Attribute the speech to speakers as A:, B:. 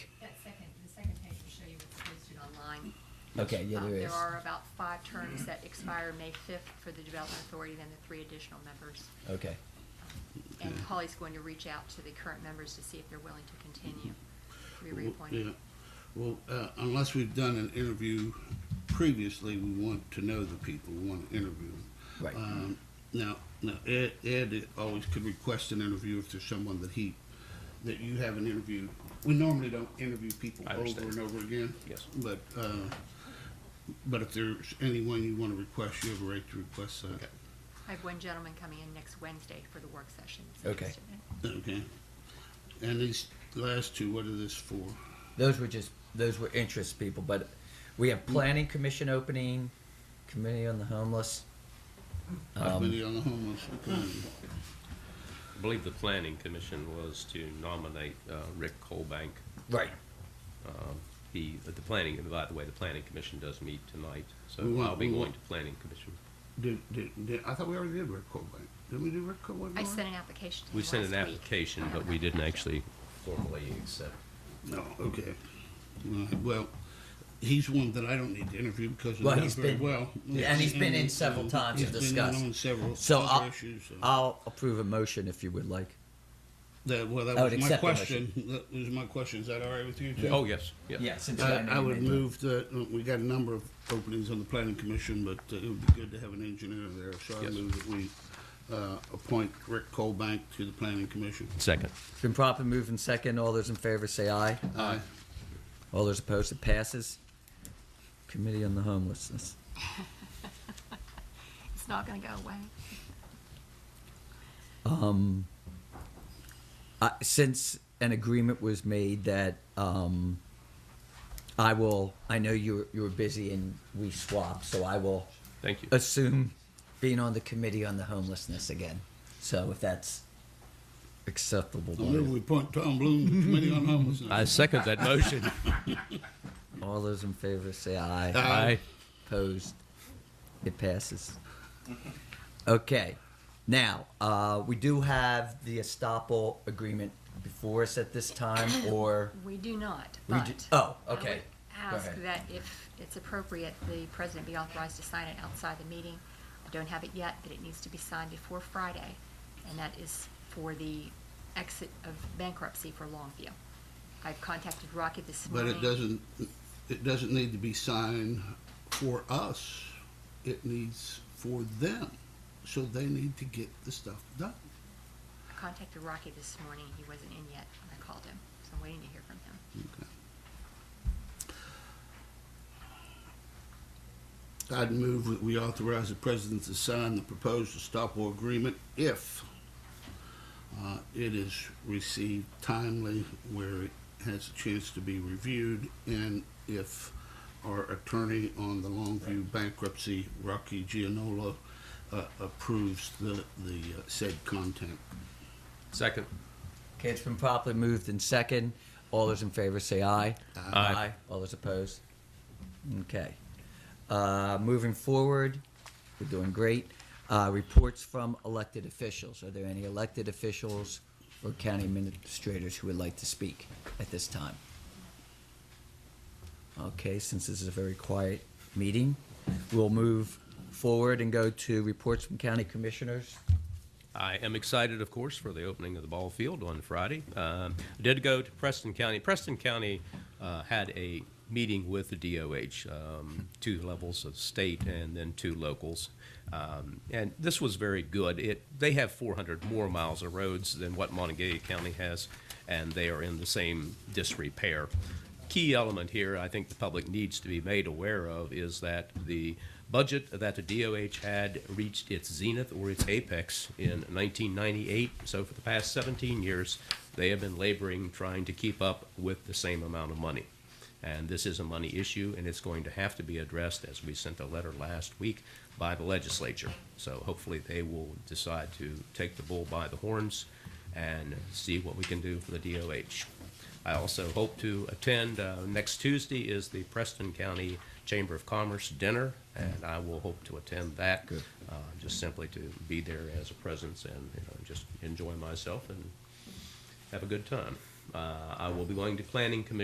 A: Okay, yeah,
B: Um,
A: there is.
B: There are about five terms that expire May fifth for the Development Authority, then the three additional members.
A: Okay,
B: And
A: Mm-hmm.
C: Okay.
B: Holly's going to reach out to the current members to see if they're willing to continue, to be
C: Well,
B: reappointed.
C: Yeah, well, uh, unless we've done an interview previously, we want to know the people, we want to interview them.
A: right.
C: Um, now, now Ed, Ed always could request an interview if there's someone that he, that you haven't interviewed. We normally don't interview people
D: I
C: over
D: understand.
C: and over again.
D: Yes.
C: But, uh, but if there's anyone you want to request, you have a right to request that.
B: I have one gentleman coming in next Wednesday for the work session. that's
A: Okay.
B: interested in it.
C: Okay. And these last two, what are this for?
A: Those were just, those were interest people, but we have planning commission opening, committee on the homeless. Um,
C: Committee on the homeless. Okay.
D: I believe the planning commission was to nominate uh, Rick Colbank.
A: right,
D: Um, He, the planning, and by the way, the planning commission does meet tonight, so
C: We want-
D: I'll be
C: we
D: going
C: want-
D: to planning commission.
C: Did, did, did, I thought we already did Rick Colbank. Didn't we do Rick
B: I
C: Colbank? already?
B: sent an application to him
D: We
B: last
D: sent an
B: week.
D: application,
B: I
D: but
B: don't
D: we
B: know.
D: didn't actually formally accept.
C: No, okay. All right, Well, he's one that I don't need to interview because we
A: Well,
C: know
A: he's
C: very
A: been-
C: well.
A: yeah, and he's been in several times to
C: He's been
A: discuss.
C: in on several
A: so
C: other
A: I'll,
C: issues. uh, so-
A: I'll approve a motion if you would like.
C: That, well, that
A: I would
C: was my
A: accept the
C: question. That was my question. Is that all right with you too?
D: Oh, yes, yes.
A: since
C: Uh, I, I would move that, uh, we got a number of openings on the planning commission, but uh, it would be good to have an engineer there. So I
D: Yes.
C: move that we, uh, appoint Rick Colbank to the planning commission.
D: Second.
A: It's been properly moved and second. All those in favor say aye.
C: Aye.
A: All those opposed, it passes. Committee on the homelessness.
B: It's not gonna go away.
A: Um, I, since an agreement was made that um, I will, I know you were, you were busy and we swapped, so I will
D: Thank you.
A: assume being on the committee on the homelessness again. So if that's acceptable,
C: I
A: by
C: move
A: you.
C: we appoint Tom Bloom to the committee on homelessness.
D: I second that motion.
A: all those in favor say aye.
D: Aye.
A: Opposed? It passes. Okay, now, uh, we do have the Estopel agreement before us at this time, or?
B: We do not,
A: We
B: but.
A: do- oh,
B: I would
A: okay. Go
B: Ask
A: ahead.
B: that if it's appropriate, the president be authorized to sign it outside the meeting. I don't have it yet, but it needs to be signed before Friday, and that is for the exit of bankruptcy for Longview. I've contacted Rocky this
C: But
B: morning.
C: it doesn't, it doesn't need to be signed for us. It needs for them. So they need to get the stuff done.
B: I contacted Rocky this morning, he wasn't in yet, when I called him, so I'm waiting to hear from him.
C: I'd move that we authorize the president to sign the proposed Estoppel agreement if uh, it is received timely, where it has a chance to be reviewed, and if our attorney on the Longview bankruptcy, Rocky Gianola, uh, approves the, the uh, said content.
D: Second.
A: Okay, it's been properly moved and second. All those in favor say aye.
D: Aye.
A: All those opposed? Okay. Uh, moving forward, we're doing great. Uh, reports from elected officials. Are there any elected officials or county administrators who would like to speak at this time? Okay, since this is a very quiet meeting, we'll move forward and go to reports from county commissioners.
D: I am excited, of course, for the opening of the ball field on Friday. Um, I did go to Preston County. Preston County uh, had a meeting with the DOH, um, two levels of state and then two locals. Um, and this was very good. It, they have 400 more miles of roads than what Montague County has, and they are in the same disrepair key element here I think the public needs to be made aware of is that the budget that the DOH had reached its zenith or its apex in 1998. So for the past 17 years, they have been laboring trying to keep up with the same amount of money. And this is a money issue, and it's going to have to be addressed as we sent a letter last week by the legislature. So hopefully they will decide to take the bull by the horns and see what we can do for the DOH. I also hope to attend. Uh, next Tuesday is the Preston County Chamber of Commerce dinner, and I will hope to attend that.
A: Good.
D: Uh, just simply to be there as a presence and you know, just enjoy myself and have a good time. Uh, I will be going to Planning Commission.